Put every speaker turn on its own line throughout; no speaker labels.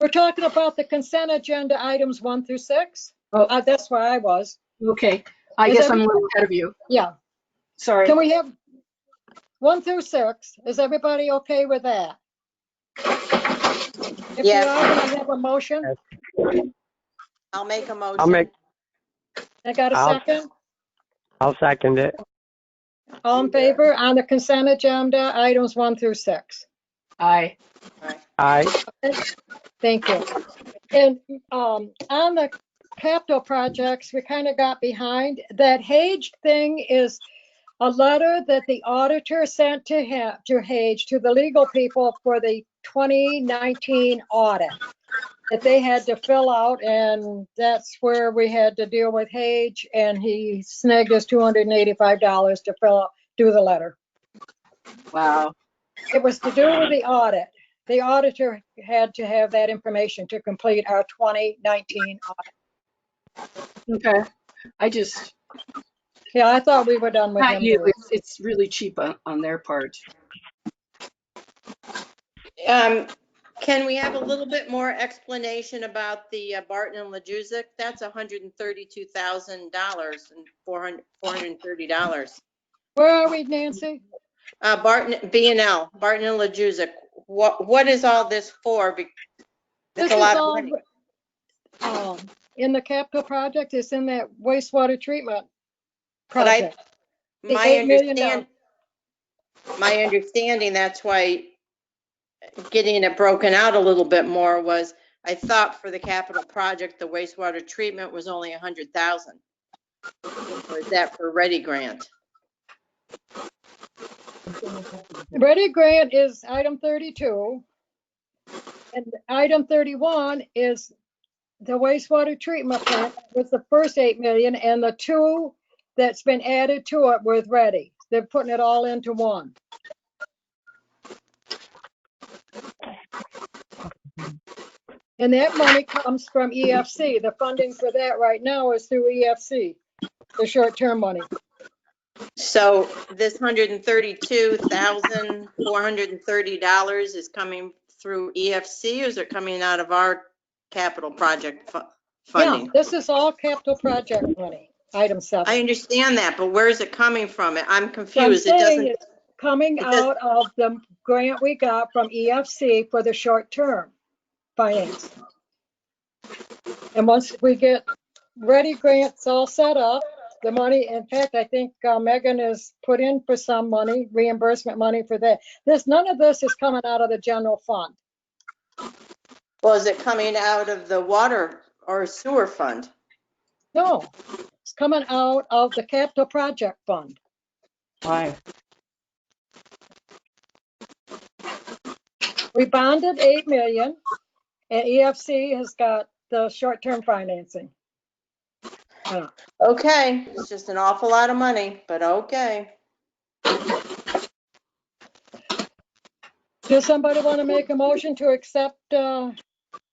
We're talking about the consent agenda items one through six.
Oh.
Uh, That's where I was.
Okay, I
Is
guess I'm a little ahead of you.
Yeah.
Sorry.
Can we have one through six? Is everybody okay with that? If you are,
Yes.
can I have a motion?
I'll make a motion.
I'll make,
I got a
I'll-
second?
I'll second it.
All in favor on the consent agenda items one through six?
Aye.
Aye,
Thank you. And um, on the capital projects, we kind of got behind. That Hage thing is a letter that the auditor sent to him, to Hage, to the legal people for the 2019 audit that they had to fill out, and that's where we had to deal with Hage, and he snagged us $285 to fill out, do the letter.
Wow.
It was to do with the audit. The auditor had to have that information to complete our 2019 audit.
Okay. I just,
Yeah, I thought we were done with
not you,
him.
it's, it's really cheap on, on their part.
Um, Can we have a little bit more explanation about the uh, Barton and Lejuzic? That's $132,000 and $400 $430.
Where are we, Nancy?
Uh, Barton, B and L, Barton and Lejuzic, what, what is all this for? Be-
This
It's a
is
lot of
all,
money.
um, In the capital project, it's in that wastewater treatment
But I-
project. the
My
$8 million
understand, my understanding, that's why getting it broken out a little bit more was, I thought for the capital project, the wastewater treatment was only a hundred thousand. Or is that for ready grant?
Ready grant is item 32. And item 31 is the wastewater treatment plant with the first 8 million and the two that's been added to it with ready. They're putting it all into one. And that money comes from EFC. The funding for that right now is through EFC, the short-term money.
So this hundred and thirty-two thousand, four hundred and thirty dollars is coming through EFC, or is it coming out of our capital project fu-
Yeah,
funding?
this is all capital project money, item seven.
I understand that, but where is it coming from?
So
I'm
I'm
confused. It
saying
doesn't,
it's coming
it doesn't-
out of the grant we got from EFC for the short-term finance. And once we get ready grants all set up, the money, in fact, I think uh, Megan has put in for some money, reimbursement money for that. This, none of this is coming out of the general fund.
well, is it coming out of the water or sewer fund?
No, it's coming out of the capital project fund.
Why?
We bonded 8 million and EFC has got the short-term financing.
Okay, it's just an awful lot of money, but okay.
Does somebody want to make a motion to accept uh,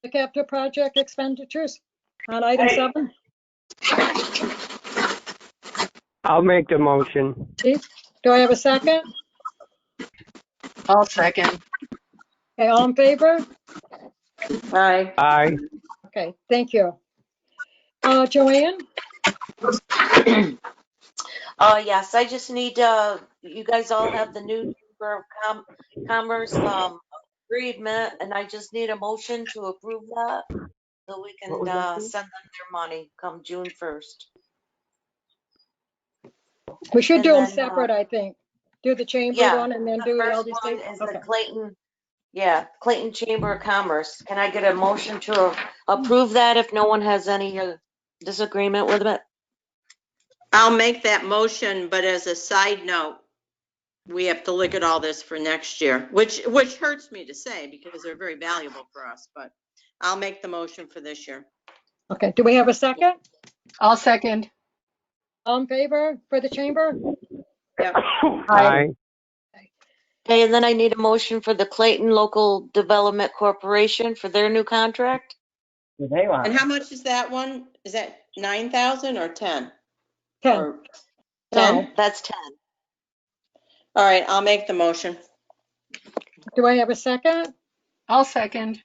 the capital project expenditures on item seven?
I'll make the motion.
Do I have a second?
I'll second.
Okay, all in favor?
Aye.
Aye,
Okay, thank you. Uh, Joanne,
Uh, yes, I just need, uh, you guys all have the new Chamber of Com- Commerce, um, agreement, and I just need a motion to approve that. So we can, uh, send them their money come June first.
we should
And
do them
then, uh,
separate, I think. Do the chamber
Yeah,
one and then
The
do
first one
LDC.
is the
Okay.
Clayton, yeah, Clayton Chamber of Commerce. Can I get a motion to a- approve that if no one has any uh, disagreement with it?
I'll make that motion, but as a side note, we have to look at all this for next year, which, which hurts me to say because they're very valuable for us, but I'll make the motion for this year.
Okay, do we have a second?
I'll second.
All in favor for the chamber?
aye,
Okay, and then I need a motion for the Clayton Local Development Corporation for their new contract.
And how much is that one? Is that 9,000 or 10?
10.
Or 10?
That's ten.
All right, I'll make the motion.
Do I have a second?
I'll second.